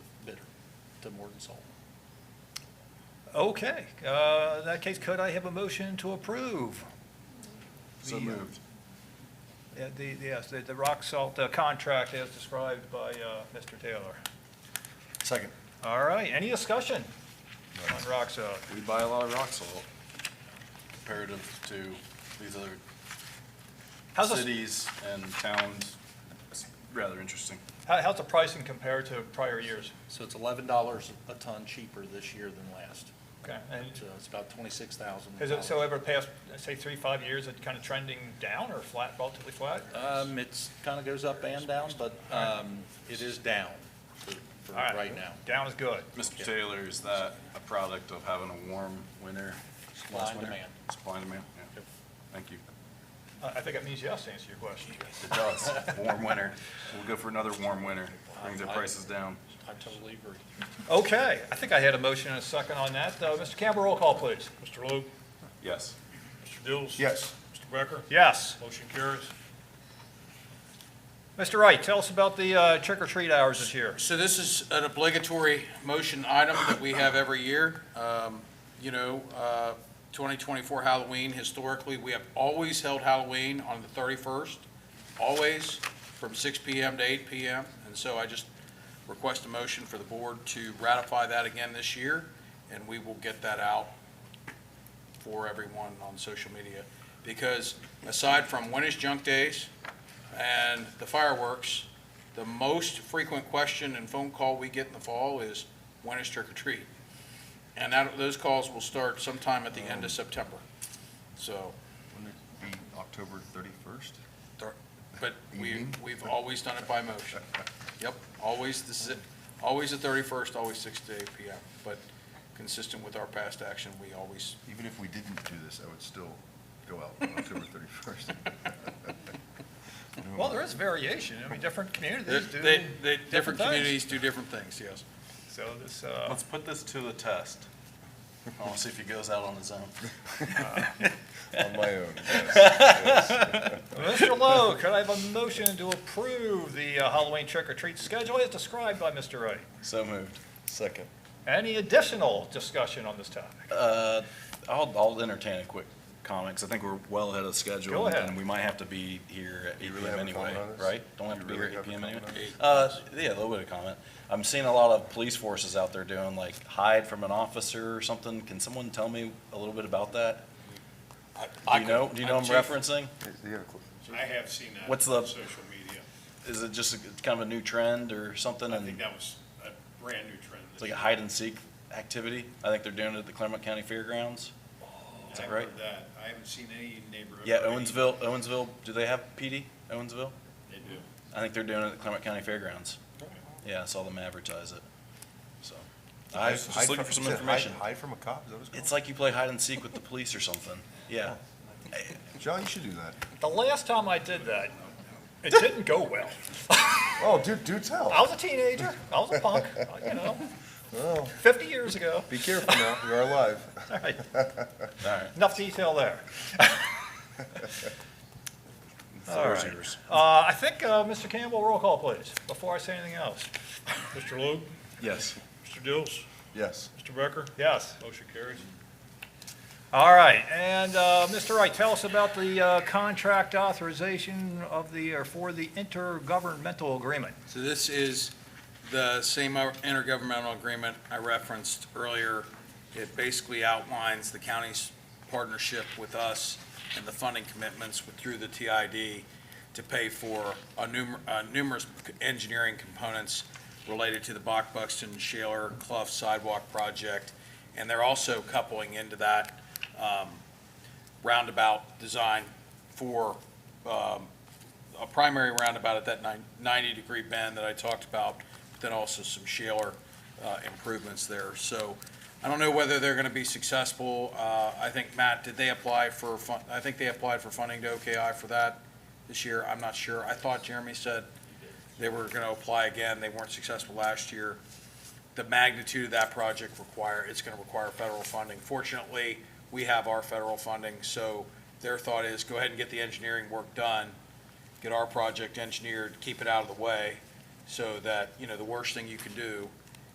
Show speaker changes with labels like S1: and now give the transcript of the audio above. S1: to Morgan Salt.
S2: Okay, uh, in that case, could I have a motion to approve?
S3: So
S2: the, uh,
S3: moved.
S2: yeah, The, yes, the, the rock salt uh, contract as described by uh, Mr. Taylor.
S3: Second.
S2: All right, any discussion on rock salt?
S3: We buy a lot of rock salt comparative to these other
S2: How's this-
S3: cities and towns. It's rather interesting.
S2: How, how's the pricing compared to prior years?
S1: So it's eleven dollars a ton cheaper this year than last.
S2: Okay, and
S1: So it's about twenty-six thousand.
S2: has Mm-hmm. it, so ever past, say, three, five years, it kind of trending down or flat, relatively flat?
S1: Um, it's, kind of goes up and down, but, um, it is down for, for
S2: All right.
S1: right now.
S2: Down is good.
S3: Mr. Taylor, is that a product of having a warm winter?
S1: Supply
S3: last
S1: and
S3: winter?
S1: demand.
S3: Supply and demand, yeah.
S1: Yep.
S3: Thank you.
S2: I, I think that means yes to answer your question.
S3: It does. Warm winter. We'll go for another warm winter. Brings
S1: I-
S3: our prices down.
S1: I totally agree.
S2: Okay, I think I had a motion and a second on that. Uh, Mr. Campbell, roll call, please.
S4: Mr. Logue,
S3: Yes.
S4: Mr. Dills?
S3: Yes.
S4: Mr. Becker?
S2: Yes.
S4: Motion carries.
S2: Mr. Wright, tell us about the uh, trick or treat hours this year.
S5: So this is an obligatory motion item that we have every year. Um, You know, uh, 2024 Halloween, historically, we have always held Halloween on the 31st, always from 6 PM to 8 PM. And so I just request a motion for the board to ratify that again this year, and we will get that out for everyone on social media. Because aside from when is junk days and the fireworks, the most frequent question and phone call we get in the fall is, when is trick or treat? And that, those calls will start sometime at the end of September. So,
S3: Wouldn't it be October thirty-first?
S5: but we,
S3: Evening?
S5: we've always done it by motion. Yep, always, this is it, always the thirty-first, always six to eight PM. But consistent with our past action, we always,
S3: Even if we didn't do this, I would still go out on October thirty-first.
S2: Well, there is variation. I mean, different communities do
S5: they, they,
S2: different
S5: different
S2: things.
S5: communities do different things, yes.
S2: So this, uh,
S3: Let's put this to the test. I want to see if he goes out on his own. On my own,
S2: Mr. Lowe, could I have a motion to approve the uh, Halloween trick or treat schedule as described by Mr. Wright?
S3: So moved. Second.
S2: Any additional discussion on this topic?
S3: Uh, I'll, I'll entertain a quick comment, 'cause I think we're well ahead of schedule.
S2: Go ahead.
S3: And we might have to be here at eight
S6: really
S3: PM
S6: have a
S3: anyway,
S6: comment on this?
S3: right? Don't have
S6: You
S3: to be here
S6: really
S3: at
S6: have
S3: eight
S6: a
S3: PM anyway.
S6: comment on
S3: Uh, yeah, a little bit of comment. I'm seeing a lot of police forces out there doing like hide from an officer or something. Can someone tell me a little bit about that?
S5: I- I
S3: Do you know,
S5: could-
S3: do you know
S5: I'm
S3: what I'm
S5: chief.
S3: referencing?
S4: I have seen that on
S3: What's the-
S4: social media.
S3: Is it just a- kind of a new trend or something?
S4: I
S3: And-
S4: think that was a brand new trend.
S3: It's like a hide and seek activity. I think they're doing it at the Claremont County Fairgrounds.
S4: I've
S3: is that right?
S4: heard that. I haven't seen any neighborhood.
S3: Yeah,
S4: or any-
S3: Owensville, Owensville, do they have PD, Owensville?
S4: They do.
S3: I think they're doing it at the Claremont County Fairgrounds. Yeah, I saw them advertise it, so. I was just looking for some information.
S6: Hide from a cop, is that what it's
S3: It's like you play hide and seek with the police or something. Yeah,
S6: called? John, you should do that.
S2: The last time I did that,
S4: Oh,
S2: it didn't go well.
S6: Oh, do, do tell.
S2: I was a teenager, I was a punk, you know,
S6: Oh,
S2: 50 years ago.
S6: be careful now, you are alive.
S2: All right,
S3: all right.
S2: Enough detail there. All
S3: Floor's
S2: right.
S3: yours.
S2: Uh, I think, uh, Mr. Campbell, roll call, please, before I say anything else.
S4: Mr. Logue,
S3: Yes.
S4: Mr. Dills,
S6: Yes.
S4: Mr. Becker?
S2: Yes.
S4: Motion carries.
S2: All right, and uh, Mr. Wright, tell us about the uh, contract authorization of the, or for the intergovernmental agreement.
S5: So this is the same intergovernmental agreement I referenced earlier. It basically outlines the county's partnership with us and the funding commitments with- through the TID to pay for a numer- uh, numerous engineering components related to the Bach Buxton Shaler Clough Sidewalk Project. And they're also coupling into that um, roundabout design for um, a primary roundabout at that 90-degree bend that I talked about, but then also some shaler uh, improvements there. So I don't know whether they're going to be successful. Uh, I think, Matt, did they apply for, fun- I think they applied for funding to OKI for that this year? I'm not sure. I thought Jeremy said they were going to apply again. They weren't successful last year. The magnitude of that project require, it's going to require federal funding. Fortunately, we have our federal funding, so their thought is go ahead and get the engineering work done get our project engineered, keep it out of the way, so that, you know, the worst thing you can do